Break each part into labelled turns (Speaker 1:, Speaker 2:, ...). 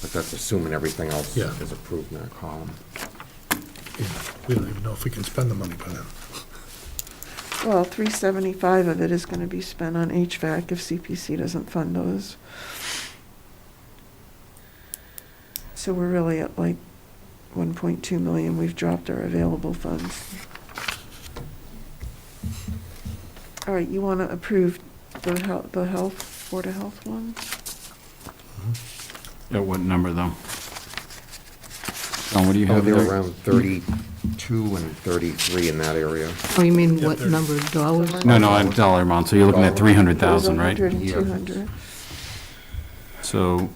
Speaker 1: that's assuming everything else
Speaker 2: Yeah.
Speaker 1: is approved in that column.
Speaker 2: Yeah, We don't even know if we can spend the money by then.
Speaker 3: Well, three seventy-five of it is gonna be spent on HVAC if CPC doesn't fund those. So we're really at like one point two million, we've dropped our available funds. All right, you wanna approve the health, the health, Board of Health one?
Speaker 4: At what number, though? John, what do you
Speaker 1: Oh,
Speaker 4: have
Speaker 1: they're
Speaker 4: there?
Speaker 1: around thirty-two and thirty-three in that area.
Speaker 5: Oh, you mean
Speaker 2: Yeah,
Speaker 5: what
Speaker 2: there-
Speaker 5: number, dollars?
Speaker 4: No, no, I'm dollar amount, so you're looking at
Speaker 1: Dollar.
Speaker 4: 300,000, right?
Speaker 3: Hundred and
Speaker 1: Yeah.
Speaker 3: two hundred.
Speaker 4: So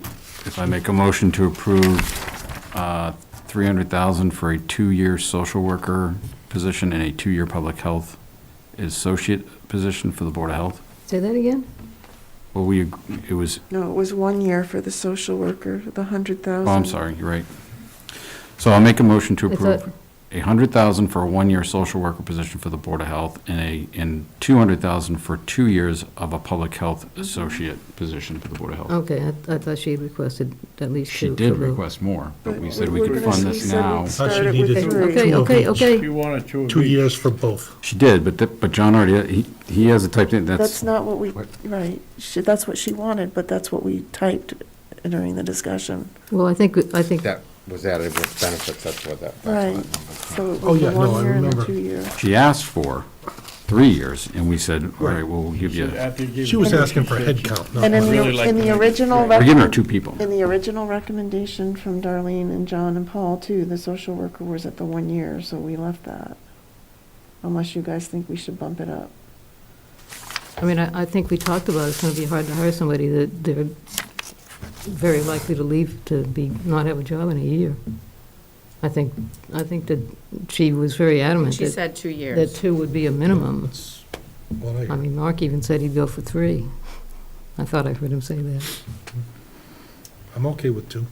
Speaker 4: if I make a motion to approve uh, 300,000 for a two-year social worker position and a two-year public health associate position for the Board of Health,
Speaker 5: Say that again?
Speaker 4: well, we, it was,
Speaker 3: No, it was one year for the social worker, the hundred thousand.
Speaker 4: oh, I'm sorry, you're right. So I'll make a motion to
Speaker 5: I thought-
Speaker 4: approve a 100,000 for a one-year social worker position for the Board of Health and a, and 200,000 for two years of a public health associate position for the Board of Health.
Speaker 5: Okay, I- I thought she requested at least
Speaker 4: She
Speaker 5: two.
Speaker 4: did
Speaker 5: for the-
Speaker 4: request more, but we said we
Speaker 3: We're
Speaker 4: could
Speaker 3: gonna-
Speaker 4: fund
Speaker 3: we
Speaker 4: this
Speaker 3: said we'd
Speaker 4: now.
Speaker 2: Thought she
Speaker 3: start it with
Speaker 2: needed
Speaker 3: three.
Speaker 5: Okay,
Speaker 2: Two of
Speaker 5: okay,
Speaker 2: them.
Speaker 5: okay.
Speaker 6: You want it two of
Speaker 2: Two
Speaker 6: each.
Speaker 2: years for both.
Speaker 4: She did, but, th- but John already, he, he has a typed in,
Speaker 3: That's
Speaker 4: that's,
Speaker 3: not what we,
Speaker 1: What?
Speaker 3: right, she, that's what she wanted, but that's what we typed during the discussion.
Speaker 5: Well, I think, I think,
Speaker 1: That was added with benefits, that's what that, that's where that
Speaker 3: Right,
Speaker 1: number comes from.
Speaker 3: so it
Speaker 2: Oh,
Speaker 3: was
Speaker 2: yeah,
Speaker 3: the
Speaker 2: no, I
Speaker 3: one year and the
Speaker 2: remember.
Speaker 3: two year.
Speaker 4: she asked for three years, and we said, all right,
Speaker 2: Right.
Speaker 4: well, we'll give you, we're
Speaker 6: After you give
Speaker 2: She was
Speaker 6: them,
Speaker 2: asking for a
Speaker 6: she
Speaker 2: head
Speaker 6: said-
Speaker 2: count, not
Speaker 3: And in
Speaker 2: money.
Speaker 6: really
Speaker 3: the,
Speaker 6: like
Speaker 3: in
Speaker 6: to
Speaker 3: the
Speaker 6: make-
Speaker 3: original.
Speaker 6: We're
Speaker 4: giving her
Speaker 3: recommend-
Speaker 4: two people.
Speaker 3: In the original recommendation from Darlene and John and Paul too, the social worker was at the one year, so we left that. Unless you guys think we should bump it up.
Speaker 5: I mean, I I think we talked about it's going to be hard to hire somebody that they're very likely to leave to be, not have a job in a year. I think, I think that she was very adamant
Speaker 7: She
Speaker 5: that
Speaker 7: said two
Speaker 5: that
Speaker 7: years.
Speaker 5: two would be a minimum. Um,
Speaker 2: That's what I
Speaker 5: I
Speaker 2: heard.
Speaker 5: mean, Mark even said he'd go for three. I thought I heard him say that.
Speaker 2: I'm okay with two,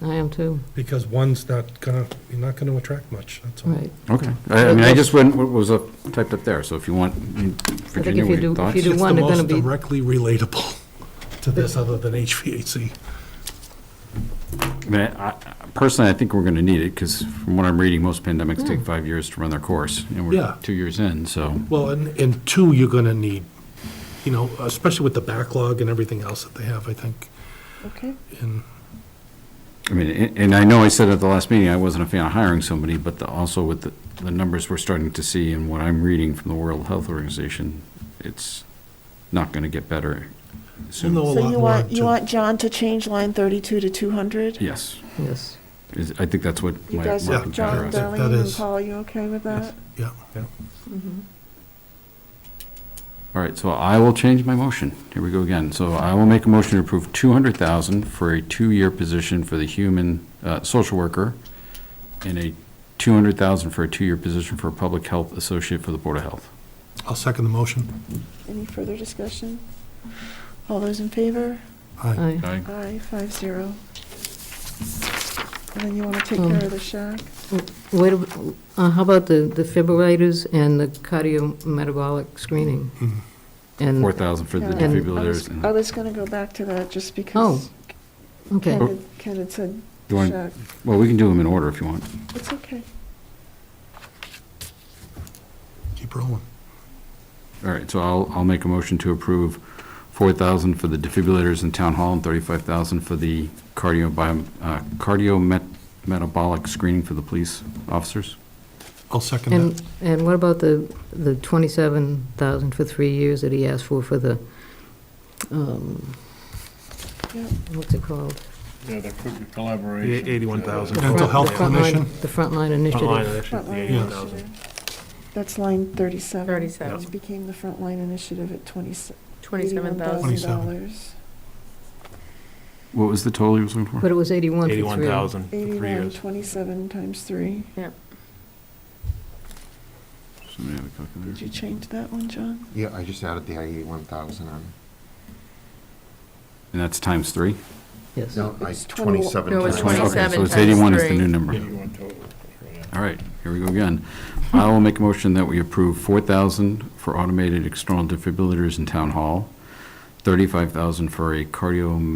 Speaker 5: I am too,
Speaker 2: because one's not gonna, you're not gonna attract much, that's all.
Speaker 5: right.
Speaker 4: okay. I, I mean, I just went, what was up, typed up there, so if you want, Virginia,
Speaker 5: you
Speaker 4: what
Speaker 5: do-
Speaker 4: your
Speaker 5: if
Speaker 4: thoughts?
Speaker 5: you do
Speaker 2: It's the
Speaker 5: one, they're gonna
Speaker 2: most
Speaker 5: be-
Speaker 2: directly relatable to this, other than HVAC.
Speaker 4: I mean, I, I- personally, I think we're gonna need it, because from what I'm reading, most pandemics take five years to run their course, and
Speaker 2: Yeah.
Speaker 4: we're two years in, so.
Speaker 2: Well, and, and two, you're gonna need, you know, especially with the backlog and everything else that they have, I think,
Speaker 3: Okay,
Speaker 2: and
Speaker 4: I mean, a- and I know I said at the last meeting, I wasn't a fan of hiring somebody, but the- also with the, the numbers we're starting to see and what I'm reading from the World Health Organization, it's not gonna get better
Speaker 2: we'll know
Speaker 4: soon.
Speaker 2: a
Speaker 3: so
Speaker 2: lot
Speaker 3: you
Speaker 2: more
Speaker 3: want, you
Speaker 2: too.
Speaker 3: want John to change line thirty-two to two hundred?
Speaker 4: Yes,
Speaker 5: Yes.
Speaker 4: is- I think that's what
Speaker 3: You
Speaker 4: my
Speaker 3: guys,
Speaker 4: my
Speaker 2: Yeah.
Speaker 3: John,
Speaker 4: computer
Speaker 2: Darlene.
Speaker 4: is.
Speaker 2: That
Speaker 3: Darlene, and
Speaker 2: is-
Speaker 3: Paul, you okay with that?
Speaker 2: Yeah.
Speaker 4: All right, so I will change my motion. Here we go again. So I will make a motion to approve two hundred thousand for a two-year position for the human, uh, social worker and a two hundred thousand for a two-year position for a public health associate for the Board of Health.
Speaker 2: I'll second the motion.
Speaker 3: Any further discussion? All those in favor?
Speaker 2: Aye.
Speaker 5: Aye.
Speaker 4: Okay?
Speaker 3: Aye, five zero. And then you want to take
Speaker 5: Um,
Speaker 3: care of the shack?
Speaker 5: Wait, a- uh, how about the defibrillators and the cardiometabolic screening?
Speaker 2: Mm-hmm.
Speaker 5: And,
Speaker 4: Four thousand for the
Speaker 3: Yeah. And-
Speaker 5: I
Speaker 4: defibrillators. and-
Speaker 3: I was going to go back to that just because
Speaker 5: okay,
Speaker 3: Ken had- Ken had said
Speaker 4: You want-
Speaker 3: shack.
Speaker 4: Well, we can do them in order if you want.
Speaker 3: It's okay.
Speaker 2: Keep rolling.
Speaker 4: All right, so I'll, I'll make a motion to approve 4,000 for the defibrillators in Town Hall and 35,000 for the cardio, bio- uh, cardiometabolic screening for the police officers.
Speaker 2: I'll second that.
Speaker 5: and, and what about the, the 27,000 for three years that he asked for for the, um,
Speaker 3: Yep.
Speaker 5: what's it called?
Speaker 6: Yeah, there could be collaboration.
Speaker 2: Mental health
Speaker 5: The frontline-
Speaker 2: clinician.
Speaker 5: The frontline initiative.
Speaker 3: Frontline
Speaker 2: Yes.
Speaker 3: initiative. That's line thirty-seven.
Speaker 7: 37.
Speaker 3: Which became the frontline initiative at twenty, eighty-one
Speaker 7: Twenty-seven thousand.
Speaker 3: thousand
Speaker 2: $27,000.
Speaker 3: dollars.
Speaker 4: What was the total you was looking for?
Speaker 5: But it was 81 for three.
Speaker 3: Eighty-one, twenty-seven times three.
Speaker 4: Somebody have a calculator?
Speaker 3: Did you change that one, John?
Speaker 1: Yeah, I just added the eighty-one thousand on.
Speaker 4: And that's times three?
Speaker 5: Yes.
Speaker 1: No, I,
Speaker 3: It's 20
Speaker 1: twenty-seven.
Speaker 7: No, it's
Speaker 1: times.
Speaker 4: Okay,
Speaker 7: 27
Speaker 4: So it's
Speaker 7: times
Speaker 4: 81 is the
Speaker 7: three.
Speaker 4: new number.
Speaker 6: Eighty-one total. yeah.
Speaker 4: All right, here we go again. I will make a motion that we approve 4,000 for automated external defibrillators in Town Hall, 35,000 for a cardio